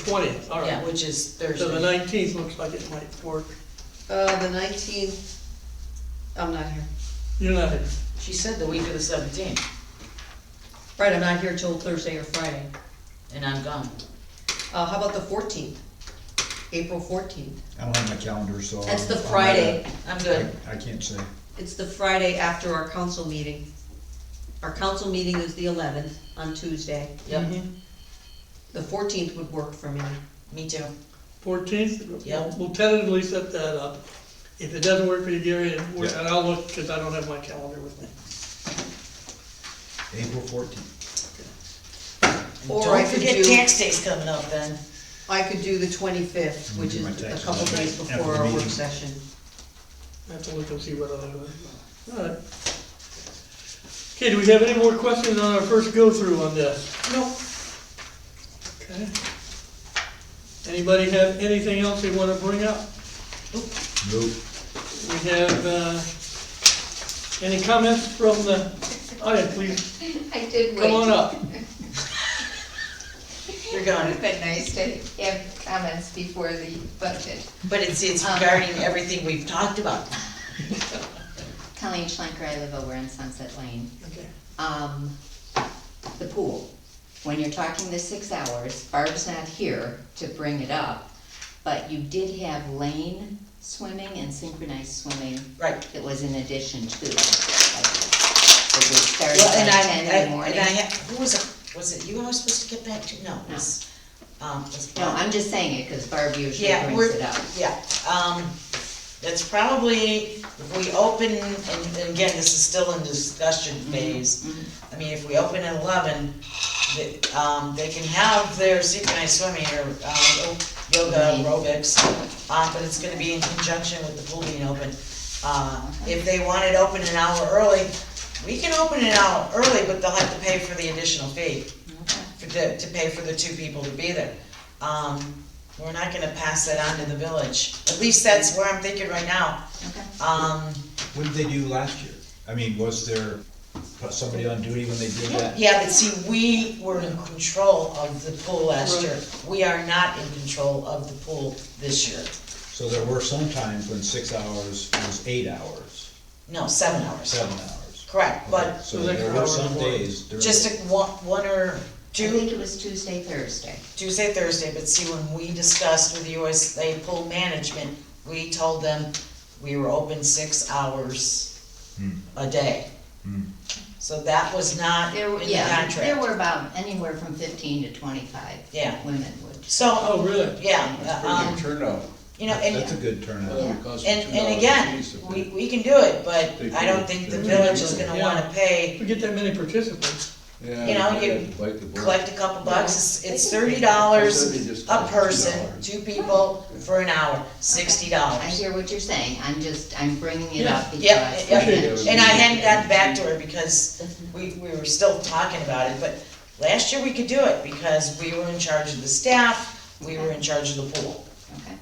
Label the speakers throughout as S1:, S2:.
S1: twentieth, all
S2: Yeah,
S1: right.
S2: which is
S1: So the
S2: Thursday.
S1: nineteenth looks like it might work.
S3: Uh, the nineteenth, I'm not here.
S1: You're not here.
S2: She said the week of the seventeenth,
S3: Right, I'm not here till Thursday or Friday.
S2: and I'm gone.
S3: Uh, how about the fourteenth? April fourteenth.
S4: I don't have my calendar, so.
S3: That's the
S4: Oh, I'm not-
S3: Friday.
S2: I'm
S4: I
S2: good.
S4: I can't say.
S3: It's the Friday after our council meeting. Our council meeting is the eleventh on Tuesday.
S2: Yep,
S3: The fourteenth would work for me.
S2: me too.
S1: Fourteenth,
S2: Yeah.
S1: we'll tentatively set that up. If it doesn't work for you, Gary, and we're-
S4: Yeah.
S1: and I'll look, because I don't have my calendar with me.
S4: April fourteenth.
S2: And
S3: Or I
S2: Don't
S3: could
S2: forget
S3: do-
S2: tax day's coming up then.
S3: I could do the twenty-fifth, which is
S4: My
S3: a
S4: taxes
S3: couple
S4: are
S3: days
S4: after
S3: before our
S4: meeting.
S3: work session.
S1: I have to look and see what other. All right. Okay, do we have any more questions on our first go-through on this?
S2: No.
S1: Okay. Anybody have anything else they want to bring up?
S4: Nope.
S1: We have, uh, any comments from the audience, please
S5: I did wait.
S1: come on up.
S2: You're gone.
S5: It'd been nice to have comments before the budget.
S2: But it's, it's regarding everything we've talked about.
S6: Colleen Schlenker, I live over in Sunset Lane.
S1: Okay.
S6: Um, the pool, when you're talking the six hours, Barb's not here to bring it up, but you did have lane swimming and synchronized swimming
S2: Right.
S6: that was in addition to. like, It would start
S2: Well, and
S6: at
S2: I,
S6: ten in the
S2: I-
S6: morning.
S2: and I had, who was it, was it you I was supposed to get back to? No, it was, um, it was.
S6: No, I'm just saying it, cause Barb usually
S2: Yeah, we're,
S6: brings it up.
S2: yeah, um, it's probably, if we open, and and again, this is still in discussion
S6: Mm-hmm.
S2: phase. I mean, if we open at eleven, the, um, they can have their synchronized swimming or, um, yoga
S6: Right.
S2: aerobics, uh, but it's gonna be in conjunction with the pool being open. Uh, if they want it open an hour early, we can open an hour early, but they'll have to pay for the additional fee
S6: Okay.
S2: for the, to pay for the two people to be there. Um, we're not gonna pass that on to the village, at least that's where I'm thinking right now.
S6: Okay.
S2: Um,
S4: What did they do last year? I mean, was there somebody on duty when they did that?
S2: yeah, but see, we were in control of the pool last year, we are not in control of the pool this year.
S4: So there were some times when six hours was eight hours,
S2: No, seven hours,
S4: seven hours.
S2: correct, but
S4: So there were some days during.
S2: just a one, one or
S6: I
S2: two,
S6: think it was Tuesday, Thursday.
S2: Tuesday, Thursday, but see, when we discussed with the USA pool management, we told them we were open six hours
S4: Hmm.
S2: a day.
S4: Hmm.
S2: So that was not
S6: There
S2: in
S6: were,
S2: the
S6: yeah, there
S2: contract.
S6: were about anywhere from fifteen to twenty-five
S2: Yeah.
S6: women would.
S2: So,
S1: Oh, really?
S2: yeah,
S7: Pretty good
S2: um,
S7: turnout.
S2: you know,
S4: That's a
S2: and,
S4: good turnout.
S6: Yeah.
S7: It costs
S2: and,
S7: $2
S2: and
S7: a
S2: again,
S7: piece if
S2: we,
S7: it-
S2: we can do it, but
S7: They
S2: I don't
S7: can.
S2: think the
S7: They
S2: village
S7: can.
S2: is gonna
S1: Yeah.
S2: wanna
S1: If
S2: pay,
S1: we get that many participants,
S7: Yeah,
S2: you know,
S7: they
S2: you
S7: had to bite the bullet.
S2: collect a couple bucks, it's, it's
S6: They can-
S2: thirty dollars
S7: Somebody just
S2: a
S7: costs
S2: person,
S7: $2.
S2: two people for an hour, sixty
S6: I
S2: dollars.
S6: hear what you're saying, I'm just, I'm bringing it
S1: Yeah,
S6: up because.
S2: yeah, yeah.
S7: Appreciate
S2: And I hadn't gotten back to her because we, we were still talking about it, but last year we could do it because we were in charge of the staff, we were in charge of the pool.
S6: Okay.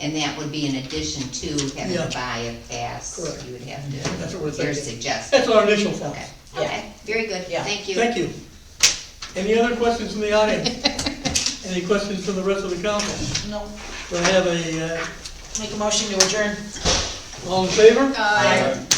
S6: And that would be in addition to having
S1: Yeah.
S6: to buy a pass,
S1: Correct.
S6: you would
S1: That's what we're
S6: have to, you're
S1: thinking.
S6: suggesting,
S1: that's our initial thought.
S6: okay, okay, very good,
S2: Yeah.
S6: thank you.
S1: Thank you. Any other questions from the audience? Any questions from the rest of the council?
S2: No,
S1: Do I have a, uh,
S2: make a motion to adjourn.
S1: all in favor?
S5: Uh,